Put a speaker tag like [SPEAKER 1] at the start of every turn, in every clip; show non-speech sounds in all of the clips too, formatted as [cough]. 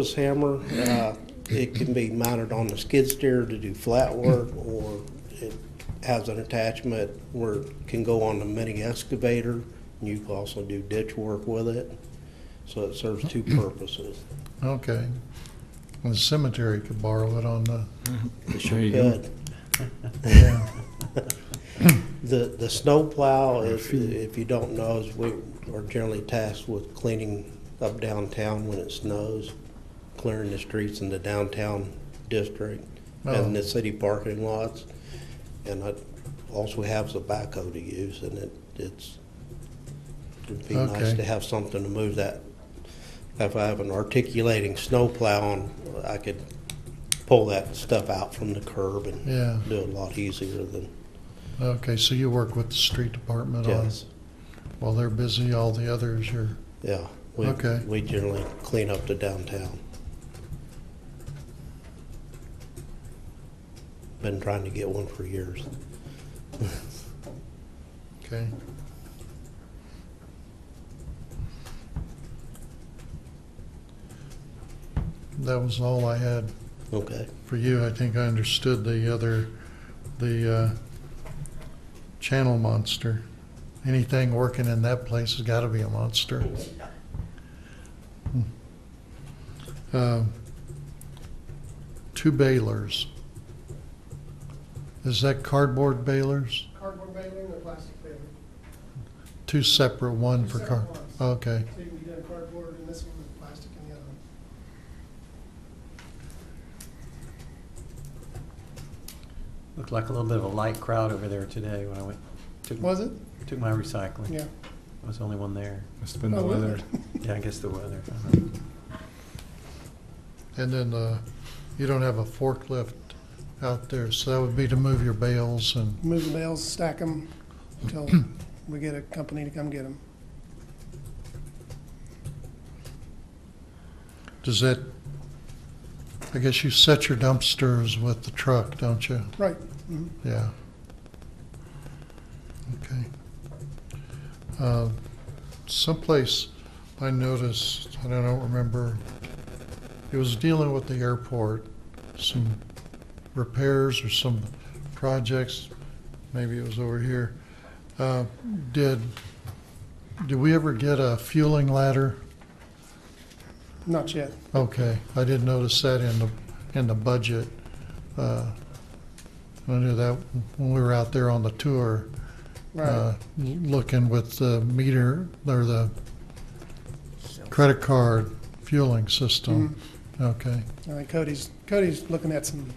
[SPEAKER 1] This hammer, uh, it can be mounted on the skid steer to do flat work, or it has an attachment where it can go on the mini excavator, and you can also do ditch work with it. So it serves two purposes.
[SPEAKER 2] Okay. Well, The cemetery could borrow it on the,
[SPEAKER 3] There you go.
[SPEAKER 1] Good.
[SPEAKER 3] [laughs]
[SPEAKER 1] The, the snow plow is, if you don't know, is we are generally tasked with cleaning up downtown when it snows, clearing the streets in the downtown district and
[SPEAKER 2] Oh.
[SPEAKER 1] the city parking lots. And I also have the backhoe to use and it, it's, it'd be nice
[SPEAKER 2] Okay.
[SPEAKER 1] to have something to move that. If I have an articulating snow plow on, I could pull that stuff out from the curb and
[SPEAKER 2] yeah,
[SPEAKER 1] do it a lot easier than,
[SPEAKER 2] okay, so you work with the street department on,
[SPEAKER 1] yes,
[SPEAKER 2] while they're busy, all the others are,
[SPEAKER 1] yeah. We-
[SPEAKER 2] Okay.
[SPEAKER 1] We generally clean up the downtown. Been trying to get one for years.
[SPEAKER 2] okay? That was all I had
[SPEAKER 1] Okay,
[SPEAKER 2] for you. I think I understood the other, the, uh, channel monster. Anything working in that place has gotta be a monster. Um, Two balers. Is that cardboard balers?
[SPEAKER 4] cardboard baler and a plastic baler.
[SPEAKER 2] Two separate, one for car?
[SPEAKER 4] Two separate ones.
[SPEAKER 2] Okay,
[SPEAKER 4] So you can get a cardboard and this one with plastic and the other one.
[SPEAKER 5] Looked like a little bit of a light crowd over there today when I went, took,
[SPEAKER 4] Was it?
[SPEAKER 5] took my recycling.
[SPEAKER 4] Yeah.
[SPEAKER 5] I was the only
[SPEAKER 4] [laughs]
[SPEAKER 5] one there.
[SPEAKER 3] Must have been the
[SPEAKER 4] Oh, really?
[SPEAKER 3] weather.
[SPEAKER 5] Yeah, I guess the weather. I don't know.
[SPEAKER 2] and then, uh, you don't have a forklift out there, so that would be to move your bales and
[SPEAKER 4] Move the bales, stack them until we get a company to come get them.
[SPEAKER 2] Does that, I guess you set your dumpsters with the truck, don't you?
[SPEAKER 4] Right. Mm-hmm.
[SPEAKER 2] Yeah. Okay. Uh, Someplace I noticed, and I don't remember, it was dealing with the airport, some repairs or some projects, maybe it was over here. Uh, Did, did we ever get a fueling ladder?
[SPEAKER 4] Not yet.
[SPEAKER 2] Okay, I did notice that in the, in the budget. Uh, I knew that when we were out there on the tour, uh,
[SPEAKER 4] Right.
[SPEAKER 2] looking with the meter, or the credit card fueling system.
[SPEAKER 4] Mm-hmm.
[SPEAKER 2] Okay,
[SPEAKER 4] I think Cody's, Cody's looking at some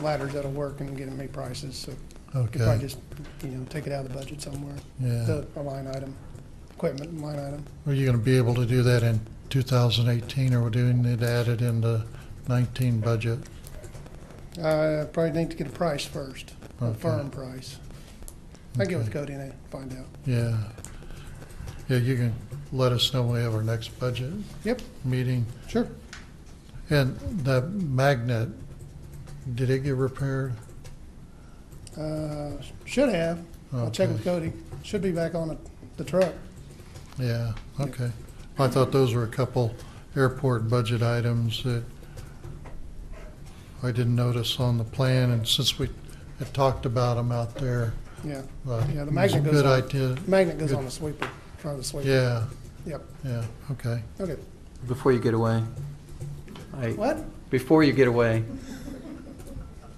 [SPEAKER 4] ladders that'll work and getting me prices, so could probably
[SPEAKER 2] okay,
[SPEAKER 4] just, you know, take it out of the budget somewhere.
[SPEAKER 2] yeah.
[SPEAKER 4] The, a line item, equipment line item.
[SPEAKER 2] Are you gonna be able to do that in 2018, or do you need to add it in the 19 budget?
[SPEAKER 4] I Uh, probably need to get a price first, a
[SPEAKER 2] Okay.
[SPEAKER 4] firm price. I get with
[SPEAKER 2] Okay.
[SPEAKER 4] Cody and I find out.
[SPEAKER 2] Yeah. Yeah, you can let us know when we have our next budget
[SPEAKER 4] Yep,
[SPEAKER 2] meeting.
[SPEAKER 4] sure.
[SPEAKER 2] And the magnet, did it get repaired?
[SPEAKER 4] Uh, should have. I'll check with Cody. Should be back on the, the truck.
[SPEAKER 2] Yeah, okay. I thought those were a couple airport budget items that I didn't notice on the plan, and since we had talked about them out there.
[SPEAKER 4] Yeah.
[SPEAKER 2] uh,
[SPEAKER 4] Yeah, the magnet
[SPEAKER 2] it was a
[SPEAKER 4] goes on.
[SPEAKER 2] Good idea.
[SPEAKER 4] Magnet goes
[SPEAKER 2] Good.
[SPEAKER 4] on the sweeper, front of the sweeper.
[SPEAKER 2] Yeah,
[SPEAKER 4] Yep.
[SPEAKER 2] yeah, okay.
[SPEAKER 4] Okay.
[SPEAKER 5] Before you get away, I,
[SPEAKER 4] What?
[SPEAKER 5] before you get away,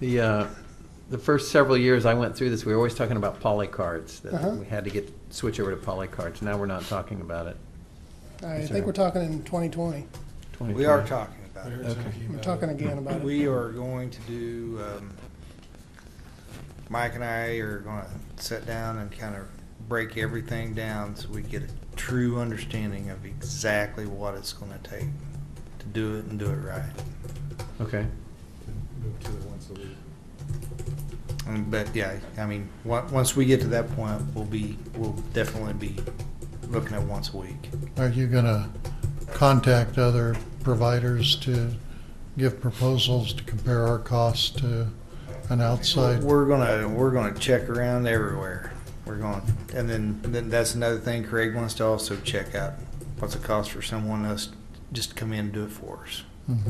[SPEAKER 5] the, uh, the first several years I went through this, we were always talking about poly cards,
[SPEAKER 4] Uh-huh.
[SPEAKER 5] that we had to get, switch over to poly cards. Now we're not talking about it.
[SPEAKER 4] I
[SPEAKER 5] Yes,
[SPEAKER 4] think
[SPEAKER 5] sir.
[SPEAKER 4] we're talking in 2020.
[SPEAKER 6] We are
[SPEAKER 5] 2020.
[SPEAKER 6] talking about it.
[SPEAKER 5] Okay.
[SPEAKER 4] We're talking again about it.
[SPEAKER 6] We are going to do, um, Mike and I are going to sit down and kind of break everything down so we get a true understanding of exactly what it's going to take to do it and do it right.
[SPEAKER 5] Okay.
[SPEAKER 3] Move to the once a week.
[SPEAKER 6] And- Um, But yeah, I mean, on- once we get to that point, we'll be, we'll definitely be looking at once a week.
[SPEAKER 2] Are you gonna contact other providers to give proposals to compare our costs to an outside?
[SPEAKER 6] We're gonna, we're gonna check around everywhere. We're going, and then, then that's another thing Craig wants to also check out. What's the cost for someone else just to come in and do it for us?
[SPEAKER 2] Mhm.